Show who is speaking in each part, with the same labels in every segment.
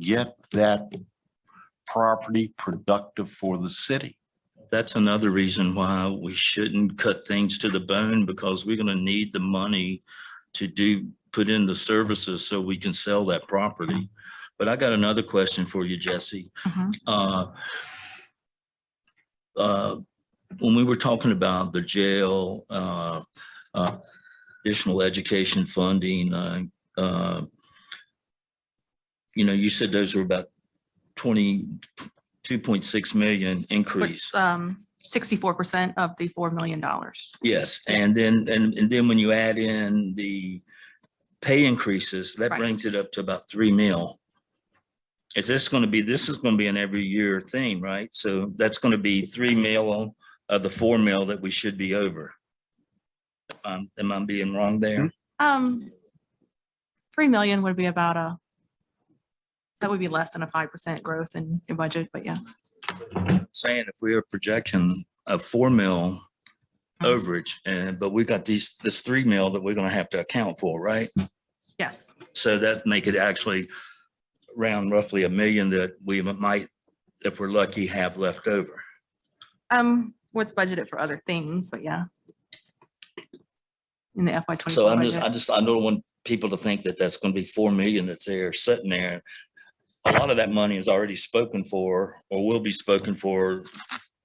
Speaker 1: get that property productive for the city.
Speaker 2: That's another reason why we shouldn't cut things to the bone because we're gonna need the money to do, put in the services so we can sell that property. But I got another question for you, Jesse.
Speaker 3: Mhm.
Speaker 2: Uh, uh, When we were talking about the jail, uh, uh, additional education funding, uh, uh, you know, you said those were about twenty, two point six million increase.
Speaker 3: Which, um, sixty-four percent of the four million dollars.
Speaker 2: Yes, and then, and, and then when you add in the pay increases, that
Speaker 3: Right.
Speaker 2: brings it up to about three mil. Is this gonna be, this is gonna be an every year thing, right? So that's gonna be three mil of the four mil that we should be over. Um, am I being wrong there?
Speaker 3: Um, three million would be about a, that would be less than a five percent growth in your budget, but yeah.
Speaker 2: Saying if we are projecting a four mil overage, and, but we got these, this three mil that we're gonna have to account for, right?
Speaker 3: Yes,
Speaker 2: So that make it actually round roughly a million that we might, if we're lucky, have left over.
Speaker 3: um, what's budgeted for other things, but yeah. In the
Speaker 4: Oh
Speaker 3: FY
Speaker 2: So
Speaker 3: twenty-four
Speaker 2: I'm just, I
Speaker 3: budget.
Speaker 2: just, I don't want people to think that that's gonna be four million that's there sitting there. A lot of that money is already spoken for or will be spoken for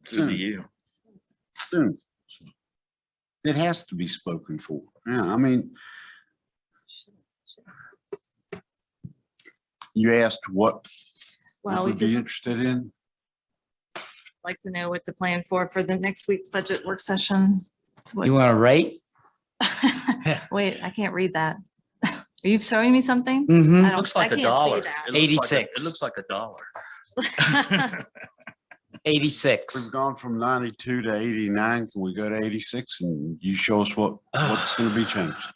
Speaker 2: through the year.
Speaker 1: Soon. Hmm. It has to be spoken for. Yeah, I mean. You asked what this
Speaker 4: Well, we
Speaker 1: would be
Speaker 4: just
Speaker 1: interested in?
Speaker 4: like to know what to plan for, for the next week's budget work session. It's what-
Speaker 5: You want to rate?
Speaker 4: Wait, I can't read that. Are you showing me something?
Speaker 5: Mm-hmm.
Speaker 4: I don't-
Speaker 2: Mm, Looks
Speaker 4: I
Speaker 2: like a
Speaker 4: can't see
Speaker 2: dollar.
Speaker 4: that.
Speaker 2: It looks like a-
Speaker 5: 86.
Speaker 2: It looks like a dollar.
Speaker 5: Eighty-six.
Speaker 1: We've gone from ninety-two to eighty-nine. Can we go to eighty-six and you show us what, what's gonna be changed?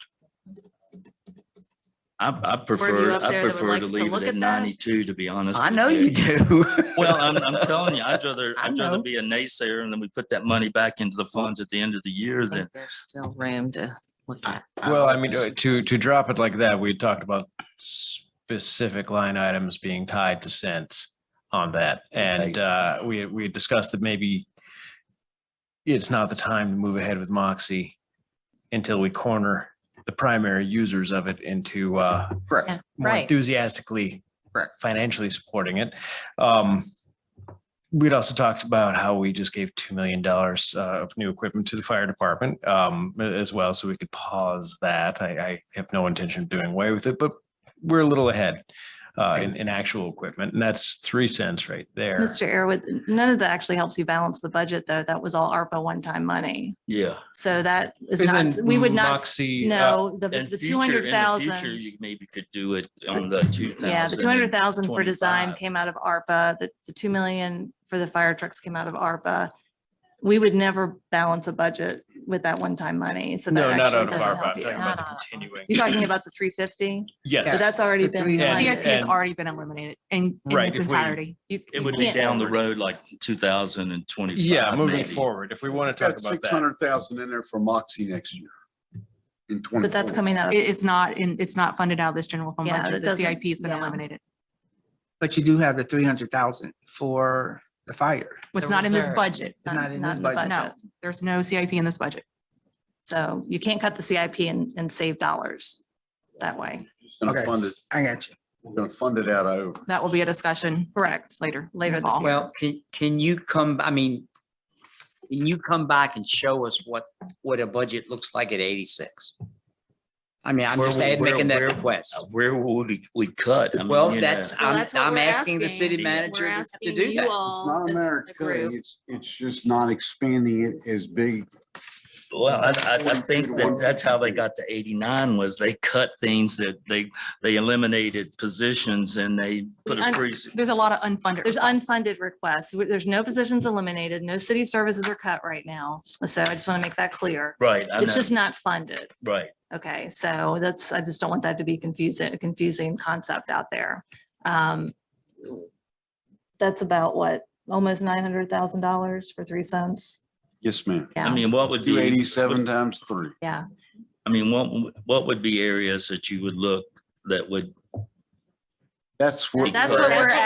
Speaker 2: I, I
Speaker 4: you
Speaker 2: prefer,
Speaker 4: up
Speaker 2: I
Speaker 4: there that would
Speaker 2: prefer
Speaker 4: like
Speaker 2: to
Speaker 4: to
Speaker 2: leave
Speaker 4: look
Speaker 2: it at
Speaker 4: at that?
Speaker 2: ninety-two, to be honest.
Speaker 5: I
Speaker 2: with
Speaker 5: know you do.
Speaker 2: Well, I'm, I'm telling you, I'd rather,
Speaker 5: I
Speaker 2: I'd rather
Speaker 5: know.
Speaker 2: be a naysayer and then we put that money back into the funds at the end of the year
Speaker 4: I
Speaker 2: than,
Speaker 4: think There's still room to look at.
Speaker 6: Well, I mean, uh, to, to drop it like that, we talked about specific line items being tied to cents on that. And uh, we, we had discussed that maybe it's not the time to move ahead with Moxie until we corner the primary users of it into uh,
Speaker 3: Yeah,
Speaker 6: more
Speaker 3: Right.
Speaker 6: enthusiastically
Speaker 1: Correct.
Speaker 6: financially supporting it. Um, We'd also talked about how we just gave $2 million uh, of new equipment to the fire department um, a- as well, so we could pause that. I, I have no intention of doing away with it, but we're a little ahead uh, in, in actual equipment, and that's three cents right there.
Speaker 4: Mr. Airwood, none of that actually helps you balance the budget, though. That was all ARPA one-time money.
Speaker 2: yeah.
Speaker 4: So that is not,
Speaker 6: Isn't
Speaker 4: we would not, s-
Speaker 6: Moxie, uh,
Speaker 4: no, the,
Speaker 2: In
Speaker 4: the
Speaker 2: future-
Speaker 4: two hundred
Speaker 2: in the future,
Speaker 4: thousand.
Speaker 2: You maybe could do it on the two thousand.
Speaker 4: Yeah, the two hundred thousand for design
Speaker 2: 25.
Speaker 4: came out of ARPA, the, the two million for the fire trucks came out of ARPA. We would never balance a budget with that one-time money, so
Speaker 6: No,
Speaker 4: that
Speaker 6: not
Speaker 4: actually
Speaker 6: out of
Speaker 4: doesn't
Speaker 6: our
Speaker 4: help
Speaker 6: budget,
Speaker 4: you.
Speaker 6: talking about the continuing.
Speaker 4: You're talking about the three fifty? So
Speaker 6: Yes.
Speaker 4: that's already been.
Speaker 6: Yeah,
Speaker 3: The
Speaker 6: and-
Speaker 3: ERP has
Speaker 6: and-
Speaker 3: already been eliminated in, in
Speaker 6: Right,
Speaker 3: its
Speaker 6: if we-
Speaker 3: entirety.
Speaker 2: It would be down the road like two thousand and twenty-five.
Speaker 6: Yeah, moving
Speaker 2: maybe.
Speaker 6: forward, if we want to talk
Speaker 1: Got
Speaker 6: about
Speaker 1: six
Speaker 6: that.
Speaker 1: hundred thousand in there for Moxie next year. In twenty.
Speaker 4: But that's coming out
Speaker 3: It
Speaker 4: of,
Speaker 3: is not in, it's not funded out of this general fund
Speaker 4: Yeah, that
Speaker 3: budget. The
Speaker 4: doesn't-
Speaker 3: CIP has been
Speaker 4: yeah.
Speaker 3: eliminated.
Speaker 7: But you do have the three hundred thousand for the fire.
Speaker 3: It's not in this budget.
Speaker 7: It's
Speaker 4: Not-
Speaker 7: not in
Speaker 4: not
Speaker 7: this
Speaker 4: in the
Speaker 7: budget.
Speaker 3: No, there's no CIP in this budget.
Speaker 4: so you can't cut the CIP and, and save dollars that way.
Speaker 1: Gonna
Speaker 7: Okay.
Speaker 1: fund it,
Speaker 7: I got you.
Speaker 1: we're gonna fund it out of over.
Speaker 3: That will be a discussion
Speaker 4: Correct.
Speaker 3: later.
Speaker 4: Later this
Speaker 3: involved.
Speaker 4: year.
Speaker 5: Well, can, can you come, I mean, can you come back and show us what, what a budget looks like at eighty-six? I mean, I'm
Speaker 2: Where
Speaker 5: just
Speaker 2: we-
Speaker 5: add-
Speaker 2: where-
Speaker 5: making that
Speaker 2: where-
Speaker 5: request.
Speaker 2: Uh, Where would we, we cut? I mean,
Speaker 5: Well,
Speaker 2: you know,
Speaker 5: that's,
Speaker 4: Well,
Speaker 5: I'm,
Speaker 4: that's what
Speaker 5: I'm
Speaker 4: we're
Speaker 5: asking the
Speaker 4: asking.
Speaker 5: city manager to- to do that.
Speaker 1: It's not
Speaker 4: as a
Speaker 1: America,
Speaker 4: group.
Speaker 1: it's, it's just not expanding it as big.
Speaker 2: Well, I, I, I think that that's how they got to eighty-nine was they cut things that they, they eliminated positions and they put a
Speaker 4: un-
Speaker 2: freeze.
Speaker 3: There's a lot of unfunded.
Speaker 4: There's
Speaker 3: requests.
Speaker 4: unfunded requests. There's no positions eliminated. No city services are cut right now. So I just want to make that clear.
Speaker 2: Right, I
Speaker 4: It's
Speaker 2: know,
Speaker 4: just not funded.
Speaker 2: right.
Speaker 4: Okay, so that's, I just don't want that to be confusing, a confusing concept out there. Um That's about what, almost nine hundred thousand dollars for three cents?
Speaker 1: Yes, ma'am.
Speaker 2: I
Speaker 4: Yeah,
Speaker 2: mean, what would be?
Speaker 1: Two eighty-seven times three.
Speaker 4: yeah.
Speaker 2: I mean, what, what would be areas that you would look that would
Speaker 8: That's what.
Speaker 1: That's what we're